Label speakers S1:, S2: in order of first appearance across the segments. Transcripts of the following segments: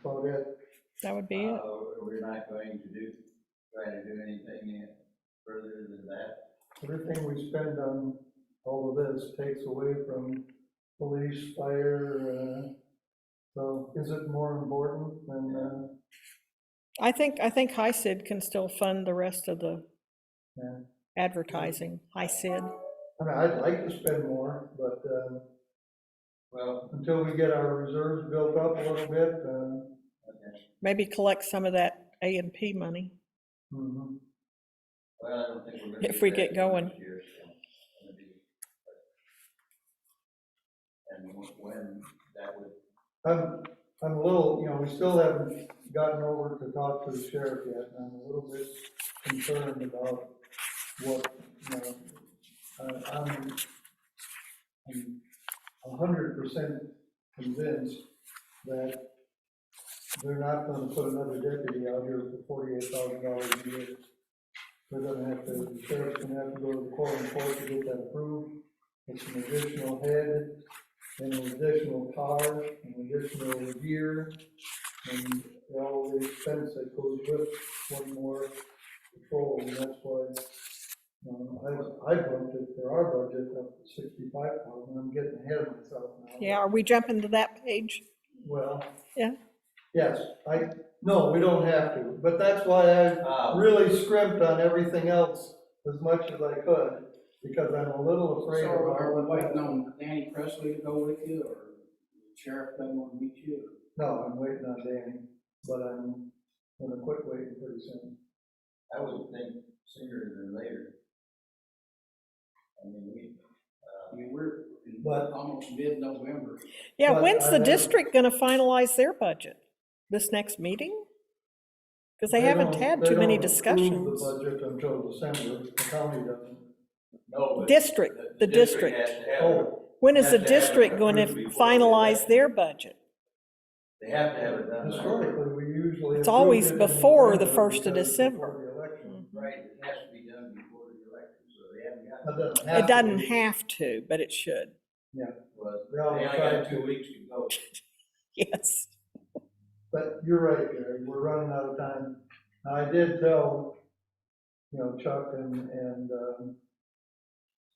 S1: about it.
S2: That would be
S1: Um,
S2: it.
S3: Uh, We're not going to do, try to do anything further than that.
S1: Everything we spend on all of this takes away from police, fire, uh, so is it more important than, uh,
S2: I think, I think High Sid can still fund the rest of the
S1: Yeah.
S2: advertising, High Sid.
S1: I mean, I'd like to spend more, but, uh,
S3: Well,
S1: until we get our reserves built up a little bit, uh,
S3: okay.
S2: Maybe collect some of that A and P money.
S1: mhm.
S3: well, I don't think we're gonna.
S2: If
S3: do
S2: we
S3: that
S2: get going.
S3: this year, so it's gonna be- And wh- when that would,
S1: I'm, I'm a little, you know, we still haven't gotten over to talk to the sheriff yet, and I'm a little bit concerned about what, you know, I- I'm, I'm a hundred percent convinced that they're not gonna put another deputy out here for forty-eight thousand dollars a year. They're gonna have to, the sheriff's gonna have to go to the court and court to get that approved. It's an additional head and an additional car, an additional gear, and all the expense that goes with one more patrol, and that's why, um, I, I bumped it for our budget up to sixty-five thousand, I'm getting ahead of myself now.
S2: Yeah, are we jumping to that page?
S1: Well.
S2: Yeah.
S1: Yes, I, no, we don't have to, but that's why I
S3: uh,
S1: really scrimped on everything else as much as I could, because I'm a little
S4: So
S1: afraid of
S4: are
S1: our.
S4: we waiting on Danny Presley to go with you, or the sheriff doesn't want to meet you?
S1: No, I'm waiting on Danny, but I'm gonna quit waiting pretty soon.
S3: I would think sooner than later. I mean, we, uh,
S4: I mean, we're in
S1: But-
S4: almost mid-November.
S2: Yeah,
S1: But
S2: when's
S1: I
S2: the
S1: know-
S2: district gonna finalize their budget? This next meeting? Because they haven't
S1: don't-
S2: had
S1: they
S2: too many
S1: don't approve
S2: discussions.
S1: The budget until December, the county doesn't.
S3: no, but.
S2: District, the
S3: has
S2: district.
S3: to have-
S1: Oh,
S2: When is
S3: has
S2: the
S3: to have it
S2: district going to
S3: approved before they-
S2: finalize their budget?
S3: They have to have it done. by-
S1: historically, we usually.
S2: It's
S1: approve
S2: always
S1: it in
S2: before the
S1: November
S2: first of
S1: because it's before
S2: December. Mm.
S1: the election.
S3: Right, it has to be done before the election, so they haven't got.
S1: That doesn't have
S2: It
S1: to
S2: doesn't
S1: be.
S2: have to, but it should.
S3: was, they
S1: They all
S3: only
S1: tried
S3: got
S1: to.
S3: two weeks to go.
S2: Yes.
S1: But you're right, Gary, we're running out of time. Now, I did tell, you know, Chuck and, and, um,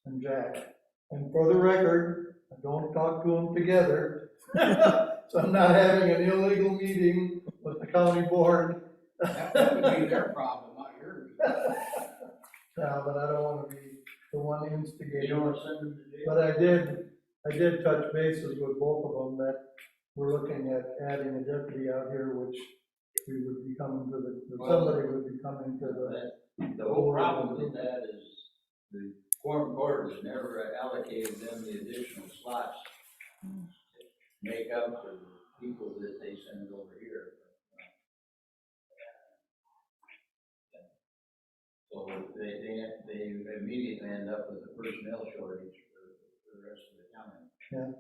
S1: and Jack, and for the record, I don't talk to them together. So I'm not having an illegal meeting with the county board.
S4: That would be their problem, not yours.
S1: No, but I don't wanna be the one
S3: You
S1: instigating.
S3: don't want to send them to jail?
S1: But I did, I did touch bases with both of them that we're looking at adding a deputy out here, which we would be coming to the, or somebody would be coming to the,
S3: That- The whole problem with that is the quorum board has never allocated them the additional slots to make up for the people that they send over here. So they, they, they immediately end up with a personnel shortage for for the rest of the county.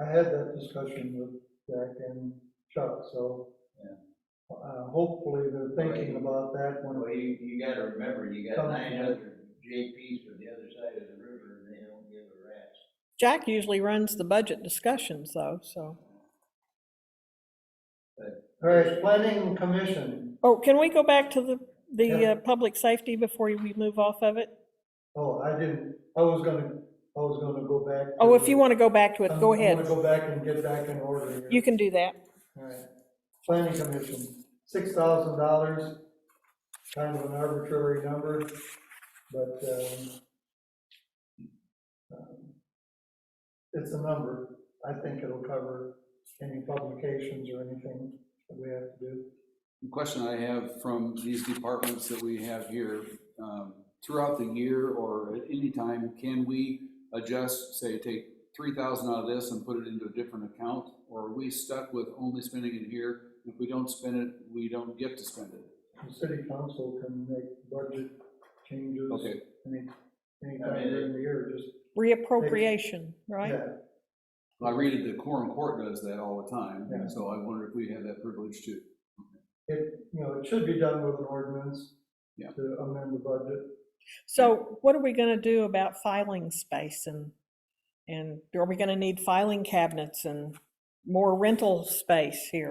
S1: I had that discussion with Jack and Chuck, so.
S3: Yeah.
S1: Uh, hopefully they're thinking about that when,
S3: Well, oh you, you gotta remember, you got
S1: Come
S3: nine
S1: on.
S3: hundred JPs from the other side of the river, and they don't give a rat's.
S2: Jack usually runs the budget discussions though, so.
S1: all right, planning commission,
S2: Oh, can we go back to the, the
S1: Yeah.
S2: uh, public safety before we move off of it?
S1: oh, I didn't, I was gonna, I was gonna go back. to-
S2: Oh, if you want to go back to it,
S1: I'm-
S2: go
S1: I'm
S2: ahead.
S1: gonna Um, go back and get back in order here.
S2: You can do that.
S1: Alright, planning commission, six thousand dollars, kind of an arbitrary number, but, um, um, it's a number, I think it'll cover any publications or anything that we have to do.
S5: The Question I have from these departments that we have here, um, throughout the year or at any time, can we adjust, say, take three thousand out of this and put it into a different account? Or are we stuck with only spending it here? If we don't spend it, we don't get to spend it.
S1: The city council can make budget changes.
S5: Okay.
S1: Any, anytime during the year, just,
S2: Reappropriation, right?
S1: yeah,
S5: I read it, the quorum court does that all the time,
S1: Yeah.
S5: so I wonder if we have that privilege too.
S1: it, you know, it should be done with an ordinance
S5: Yeah.
S1: to amend the budget.
S2: So what are we going to do about filing space and, and are we going to need filing cabinets and more rental space here?